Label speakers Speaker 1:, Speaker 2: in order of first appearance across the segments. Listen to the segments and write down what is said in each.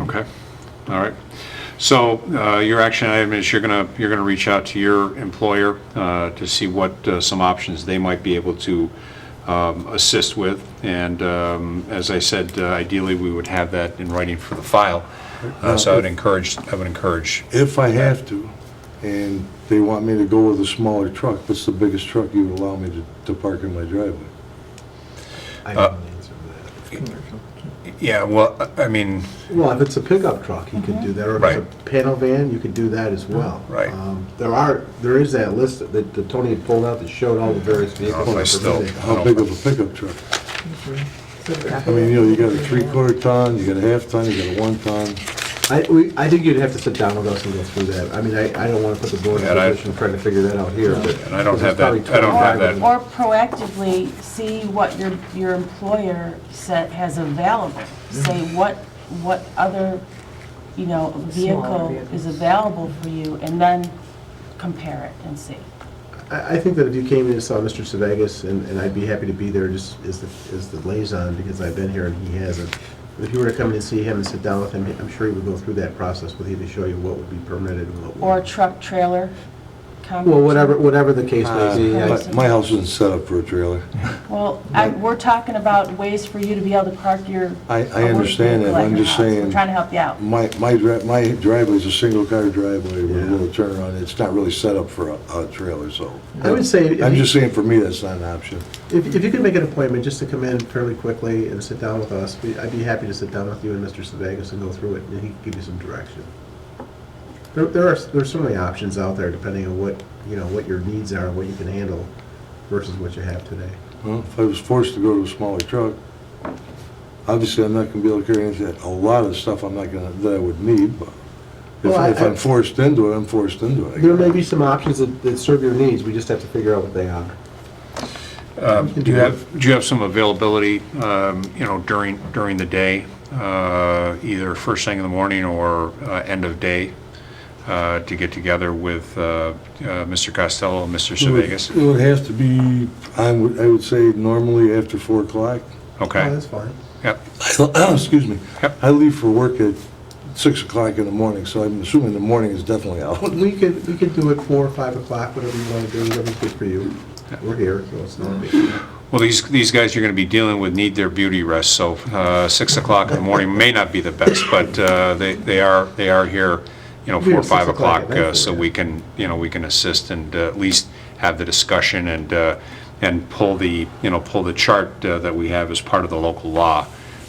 Speaker 1: Okay, all right. So uh, your action item is you're going to, you're going to reach out to your employer uh, to see what uh, some options they might be able to um, assist with. And um, as I said, uh, ideally, we would have that in writing for the file. Uh, So I would encourage, I would encourage,
Speaker 2: If I have to, and they want me to go with a smaller truck, what's the biggest truck you would allow me to, to park in my driveway?
Speaker 3: I
Speaker 1: Uh,
Speaker 3: don't answer to that.
Speaker 1: yeah, well, I I mean,
Speaker 3: Well, if it's a pickup truck, you can do that, or if
Speaker 1: Right.
Speaker 3: it's a panel van, you could do that as well.
Speaker 1: Right.
Speaker 3: Um, There are, there is that list that that Tony had pulled out that showed all the various
Speaker 1: if
Speaker 3: vehicles.
Speaker 1: I
Speaker 3: that are
Speaker 1: still-
Speaker 3: permitted.
Speaker 2: How big of a pickup truck? I mean, you know, you got a three-quarter ton, you got a half ton, you got a one ton.
Speaker 3: I, we, I think you'd have to sit down with us and go through that. I mean, I, I don't want to put the board in
Speaker 1: And
Speaker 3: a
Speaker 1: I-
Speaker 3: position trying to figure that out here, but.
Speaker 1: And I don't
Speaker 3: because
Speaker 1: have
Speaker 3: there's probably
Speaker 1: that- I don't have that.
Speaker 3: 25
Speaker 4: Or proactively see what your, your employer set, has available. Say what, what other, you know, vehicle is available for you, and then compare it and see.
Speaker 3: I, I think that if you came in and saw Mr. Sevegas, and, and I'd be happy to be there just as the, as the liaison, because I've been here and he hasn't. If you were to come in and see him and sit down with him, I'm sure he would go through that process with you to show you what would be permitted and what
Speaker 4: Or
Speaker 3: wouldn't.
Speaker 4: truck, trailer. combi-
Speaker 3: Well, whatever, whatever the case may be. I-
Speaker 2: Uh, My- My house isn't set up for a trailer.
Speaker 4: Well, I- we're talking about ways for you to be able to park your.
Speaker 2: I- I
Speaker 4: a work
Speaker 2: understand that,
Speaker 4: vehicle at
Speaker 2: I'm
Speaker 4: your
Speaker 2: just
Speaker 4: house. We're
Speaker 2: saying-
Speaker 4: Trying to help you out.
Speaker 2: My, my dri, my driveway's a single-car driveway with a
Speaker 3: Yeah.
Speaker 2: little turnaround. It's not really set up for a, a trailer, so.
Speaker 3: I would say if
Speaker 2: I'm
Speaker 3: you-
Speaker 2: just saying, for me, that's not an option.
Speaker 3: If, if you could make an appointment just to come in fairly quickly and sit down with us, we- I'd be happy to sit down with you and Mr. Sevegas and go through it, and he can give you some direction. There, there are, there's so many options out there depending on what, you know, what your needs are, what you can handle versus what you have today.
Speaker 2: Well, if I was forced to go to a smaller truck, obviously I'm not gonna be able to carry anything, a lot of stuff I'm not gonna, that I would need, but if,
Speaker 3: Well, I-
Speaker 2: if I'm forced into it, I'm forced into it. I
Speaker 3: There may
Speaker 2: guess.
Speaker 3: be some options that, that serve your needs, we just have to figure out what they are.
Speaker 1: um, do you have, do you have some availability, um, you know, during, during the day, uh, either first thing in the morning or uh, end of day, uh, to get together with uh, uh, Mr. Costello and Mr.
Speaker 2: It would-
Speaker 1: Sevegas?
Speaker 2: It would have to be, I would, I would say normally after four o'clock.
Speaker 3: Oh,
Speaker 1: Okay,
Speaker 3: That's fine.
Speaker 1: yep,
Speaker 2: Excuse me.
Speaker 1: Yep.
Speaker 2: I leave for work at six o'clock in the morning, so I'm assuming the morning is definitely out.
Speaker 3: We could, we could do it four or five o'clock, whatever you wanna do, whatever's good for you. We're here, so it's not a big deal.
Speaker 1: Well, these, these guys you're going to be dealing with need their beauty rest, so uh, 6 o'clock in the morning may not be the best, but uh, they they are, they are here, you know,
Speaker 3: We
Speaker 1: 4,
Speaker 3: were
Speaker 1: or 5
Speaker 3: 6 o'clock at
Speaker 1: o'clock,
Speaker 3: night,
Speaker 1: uh, so
Speaker 3: yeah.
Speaker 1: we can, you know, we can assist and uh, at least have the discussion and, uh, and pull the, you know, pull the chart uh, that we have as part of the local law,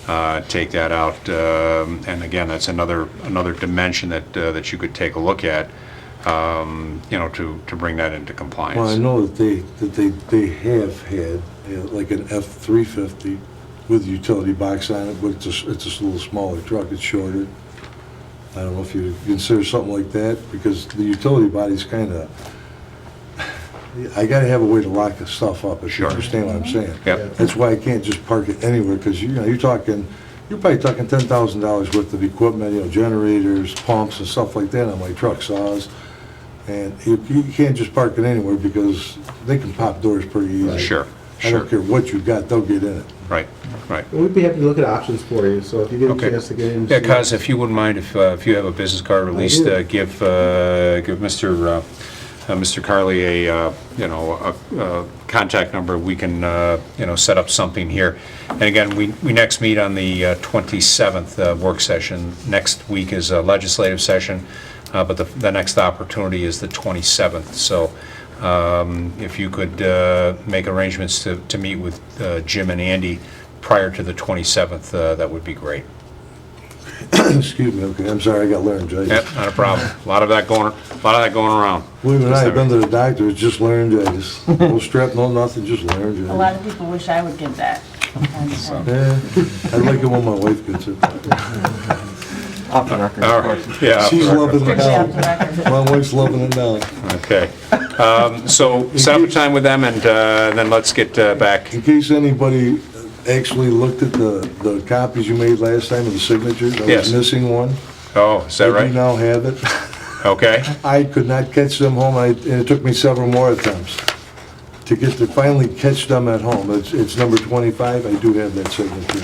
Speaker 1: uh, take that out. um, And again, that's another, another dimension that, uh, that you could take a look at, um, you know, to, to bring that into compliance.
Speaker 2: Well, I know that they, that they, they have had, you know, like an F-350 with utility box on it, but it's a, s- it's a s- little smaller truck, it's shorter. I don't know if you consider something like that, because the utility body's kind of, I gotta have a way to lock the stuff up, if you
Speaker 1: Sure.
Speaker 2: understand what I'm saying.
Speaker 1: Yep.
Speaker 2: That's why I can't just park it anywhere, because you know, you're talking, you're probably talking ten thousand dollars worth of equipment, you know, generators, pumps and stuff like that on my truck saws. And you, you can't just park it anywhere because they can pop doors pretty easy.
Speaker 1: Sure,
Speaker 2: I
Speaker 1: sure.
Speaker 2: don't care what you've got, they'll get in it.
Speaker 1: Right, right.
Speaker 3: We'd be happy to look at options for you, so if you get a
Speaker 1: Okay.
Speaker 3: chance to get in. and
Speaker 1: Yeah,
Speaker 3: see-
Speaker 1: Kaz, if you wouldn't mind, if, uh, if you have a business card released,
Speaker 3: do.
Speaker 1: uh, give, uh, give Mr., uh, uh, Mr. Carley a, uh, you know, a, a contact number, we can, uh, you know, set up something here. And again, we, we next meet on the uh, 27th uh, work session. Next week is a legislative session, uh, but the, the next opportunity is the 27th. So um, if you could uh, make arrangements to, to meet with uh, Jim and Andy prior to the 27th, uh, that would be great.
Speaker 2: Excuse me, okay, I'm sorry, I got laryngitis.
Speaker 1: Yep, not a problem. A lot of that going, a lot of that going around.
Speaker 2: Believe it or not, I've been to the doctor, it's just laryngitis. No strep, no nothing, just laryngitis.
Speaker 4: A lot of people wish I would get that. And, uh,
Speaker 2: Yeah, I like it when my wife gets it.
Speaker 5: Off the record.
Speaker 1: All right, yeah.
Speaker 2: She's loving it
Speaker 4: Strictly off the
Speaker 2: now.
Speaker 4: record.
Speaker 2: My wife's loving it now.
Speaker 1: Okay. Um, So set up a time with them and uh, then let's get uh, back.
Speaker 2: In case anybody actually looked at the, the copies you made last time of the signatures, I
Speaker 1: Yes.
Speaker 2: was missing one.
Speaker 1: Oh, is that
Speaker 2: We
Speaker 1: right?
Speaker 2: now have it.
Speaker 1: Okay,
Speaker 2: I could not catch them home, I- and it took me several more attempts to get to finally catch them at home. It's, it's number 25, I do have that signature.